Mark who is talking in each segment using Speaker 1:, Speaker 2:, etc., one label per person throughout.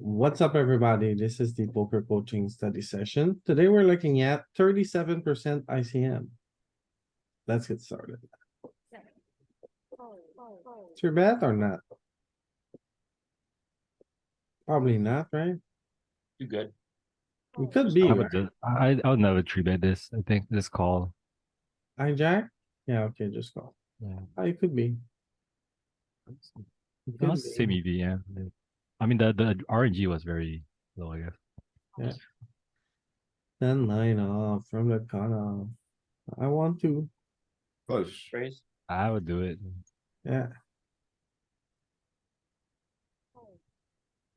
Speaker 1: What's up, everybody? This is the poker coaching study session. Today we're looking at thirty-seven percent ICM. Let's get started. It's your bet or not? Probably not, right?
Speaker 2: You good?
Speaker 1: We could be,
Speaker 3: I
Speaker 1: right?
Speaker 3: would do, I, I would never tree bet this. I think this call.
Speaker 1: hijack? Yeah, okay, just call.
Speaker 3: Yeah.
Speaker 1: Ah, It could be. It could
Speaker 3: Not
Speaker 1: be.
Speaker 3: semi VM. E I mean, the, the RNG was very low, I guess.
Speaker 1: Ten nine off from the cutoff. I want to,
Speaker 4: Close.
Speaker 2: Raise?
Speaker 3: I would do it.
Speaker 1: yeah.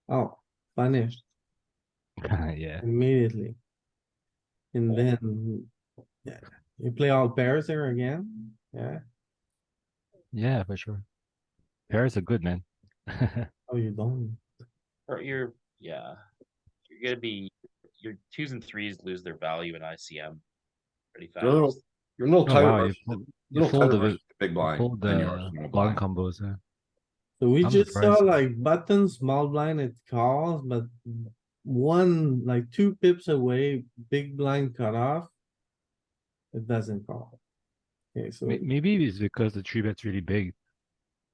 Speaker 1: Oh, punished
Speaker 3: Yeah,
Speaker 1: immediately. And then, yeah, you play all pairs there again, yeah?
Speaker 3: yeah, for sure. Pairs are good, man.
Speaker 1: Oh, you don't.
Speaker 2: Or you're, yeah. You're gonna be, your twos and threes lose their value in ICM. Pretty
Speaker 4: No.
Speaker 2: fast.
Speaker 4: You're a little
Speaker 3: Oh,
Speaker 4: tighter
Speaker 3: wow,
Speaker 4: versus,
Speaker 3: you
Speaker 4: the-
Speaker 3: pulled- you
Speaker 4: little
Speaker 3: fold
Speaker 4: tighter
Speaker 3: the-
Speaker 4: versus the big
Speaker 3: Pull
Speaker 4: blind than you are
Speaker 3: the
Speaker 4: small
Speaker 3: long
Speaker 4: blind.
Speaker 3: combos, yeah.
Speaker 1: So we
Speaker 3: I'm
Speaker 1: just saw
Speaker 3: surprised.
Speaker 1: like button, small blind, it calls, but one, like two pips away, big blind cutoff. It doesn't call. Okay, so
Speaker 3: May- Maybe it's because the tree bet's really big.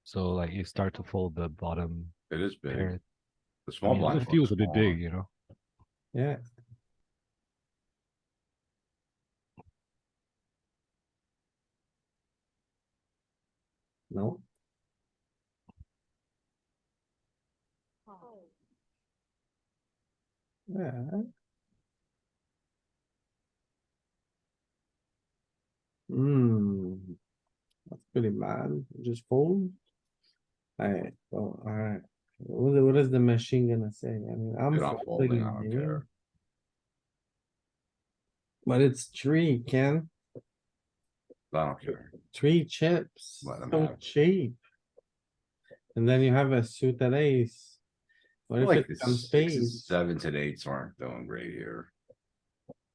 Speaker 3: So like you start to fold the bottom
Speaker 4: It is big.
Speaker 3: pair.
Speaker 4: The
Speaker 3: I
Speaker 4: small
Speaker 3: mean,
Speaker 4: blind.
Speaker 3: It
Speaker 4: one's
Speaker 3: feels a bit
Speaker 4: smaller.
Speaker 3: big, you know?
Speaker 1: Yeah. No, yeah, hmm. That's pretty bad, just fold. Alright, well, alright, what, what is the machine gonna say? I mean, I'm
Speaker 4: Dude, I'm folding, I
Speaker 1: folding
Speaker 4: don't
Speaker 1: here,
Speaker 4: care.
Speaker 1: but it's three, Ken,
Speaker 4: I don't care.
Speaker 1: three chips,
Speaker 4: Let 'em
Speaker 1: so
Speaker 4: have it.
Speaker 1: cheap. And then you have a suited ace. What if
Speaker 4: Like
Speaker 1: it
Speaker 4: the
Speaker 1: comes
Speaker 4: sixes,
Speaker 1: spades?
Speaker 4: sevens and eights aren't doing great here.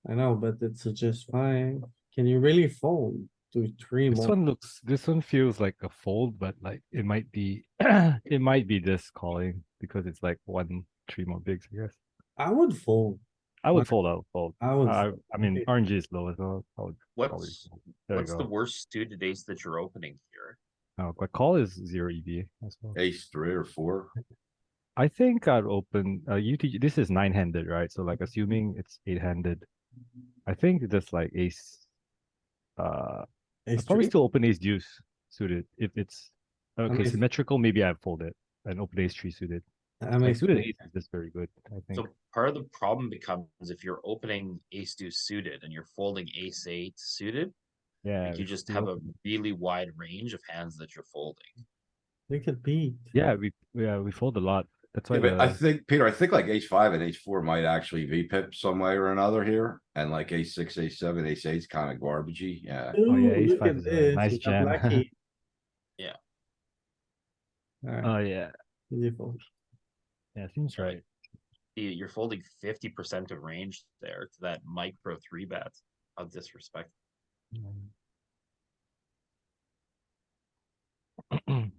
Speaker 1: I know, but it's just fine. Can you really fold to three
Speaker 3: This
Speaker 1: more?
Speaker 3: one looks, this one feels like a fold, but like it might be, it might be this calling because it's like one, three more bigs, I guess.
Speaker 1: I would fold.
Speaker 3: I would
Speaker 1: Right.
Speaker 3: fold, I would fold.
Speaker 1: I would.
Speaker 3: I,
Speaker 1: fold.
Speaker 3: I mean,
Speaker 1: Okay.
Speaker 3: RNG is low as well. I would probably
Speaker 2: What's,
Speaker 3: fold. There you
Speaker 2: what's the
Speaker 3: go.
Speaker 2: worst suited ace that you're opening here?
Speaker 3: No, but call is zero EV as well.
Speaker 4: Ace three or four.
Speaker 3: I think I'd open, uh, UTG, this is nine handed, right? So like assuming it's eight handed. I think just like ace. Uh,
Speaker 1: Ace
Speaker 3: I'd probably
Speaker 1: three?
Speaker 3: still open ace deuce suited if it's, okay,
Speaker 1: if-
Speaker 3: symmetrical, maybe I fold it and open ace three suited.
Speaker 1: I mean,
Speaker 3: Like suited ace is just very good, I
Speaker 2: So
Speaker 3: think.
Speaker 2: part of the problem becomes if you're opening ace deuce suited and you're folding ace eight suited,
Speaker 3: Yeah.
Speaker 2: like you
Speaker 3: we
Speaker 2: just
Speaker 3: could
Speaker 2: have
Speaker 3: go-
Speaker 2: a really wide range of hands that you're folding.
Speaker 1: look at Pete.
Speaker 3: Yeah, we, yeah, we fold a lot. That's why
Speaker 4: Yeah, but I
Speaker 3: the,
Speaker 4: think, Peter, I think like ace five and ace four might actually V pip some way or another here. And like ace six, ace seven, ace eight's kinda garbagey, yeah.
Speaker 1: Oh,
Speaker 3: yeah, ace five is a nice jam.
Speaker 2: Yeah.
Speaker 1: Alright,
Speaker 3: oh yeah,
Speaker 1: beautiful.
Speaker 3: yeah, seems right.
Speaker 2: You- You're folding fifty percent of range there to that micro three bet of disrespect.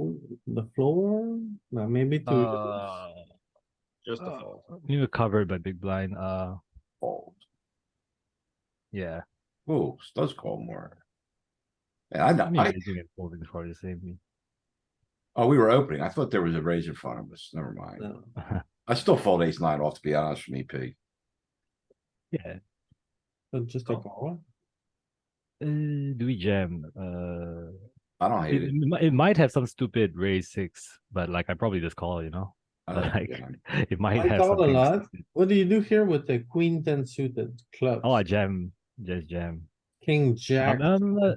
Speaker 1: Ooh, The floor, no, maybe two.
Speaker 3: Uh,
Speaker 2: Just a
Speaker 3: uh,
Speaker 2: fold.
Speaker 3: we were covered by big blind, uh,
Speaker 4: Fold.
Speaker 3: yeah.
Speaker 4: Ooh, does call more. Yeah, I
Speaker 3: I
Speaker 4: know,
Speaker 3: mean,
Speaker 4: I,
Speaker 3: raising and folding is probably the same.
Speaker 4: oh, we were opening. I thought there was a raise in front of us. Never mind.
Speaker 1: No.
Speaker 4: I still fold ace nine off, to be honest, from EP.
Speaker 3: Yeah,
Speaker 1: So just a
Speaker 3: oh.
Speaker 2: Call.
Speaker 1: call.
Speaker 3: uh, do we jam? Uh,
Speaker 4: I don't
Speaker 3: it,
Speaker 4: hate
Speaker 3: it
Speaker 4: it.
Speaker 3: mi- it might have some stupid raise six, but like I probably just call, you know?
Speaker 4: I
Speaker 3: But
Speaker 4: don't-
Speaker 3: like, it might
Speaker 1: I
Speaker 3: have
Speaker 1: call a
Speaker 3: something.
Speaker 1: lot.
Speaker 3: stupid.
Speaker 1: What do you do here with the queen ten suited clubs?
Speaker 3: Oh, I jam, just jam.
Speaker 1: King, jack,
Speaker 3: Um, uh,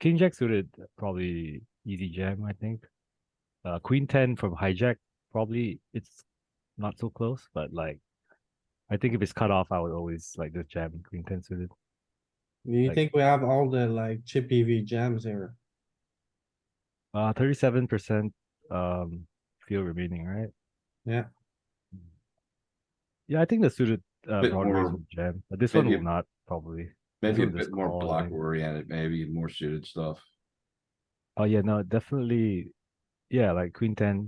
Speaker 3: King Jack suited probably easy jam, I think. Uh, Queen ten from hijack probably it's not so close, but like I think if it's cut off, I would always like just jam Queen ten suited.
Speaker 1: do you
Speaker 3: like-
Speaker 1: think we have all the like chip E V jams here?
Speaker 3: Uh, thirty-seven percent um field remaining, right?
Speaker 1: Yeah.
Speaker 3: Yeah, I think the suited uh,
Speaker 4: Bit
Speaker 3: broadways
Speaker 4: more-
Speaker 3: will jam, but this one
Speaker 4: maybe
Speaker 3: will
Speaker 4: a-
Speaker 3: not probably.
Speaker 4: Maybe a
Speaker 3: This
Speaker 4: bit more
Speaker 3: call, I
Speaker 4: block
Speaker 3: think.
Speaker 4: oriented, maybe more suited stuff.
Speaker 3: Oh yeah, no, definitely. Yeah, like Queen ten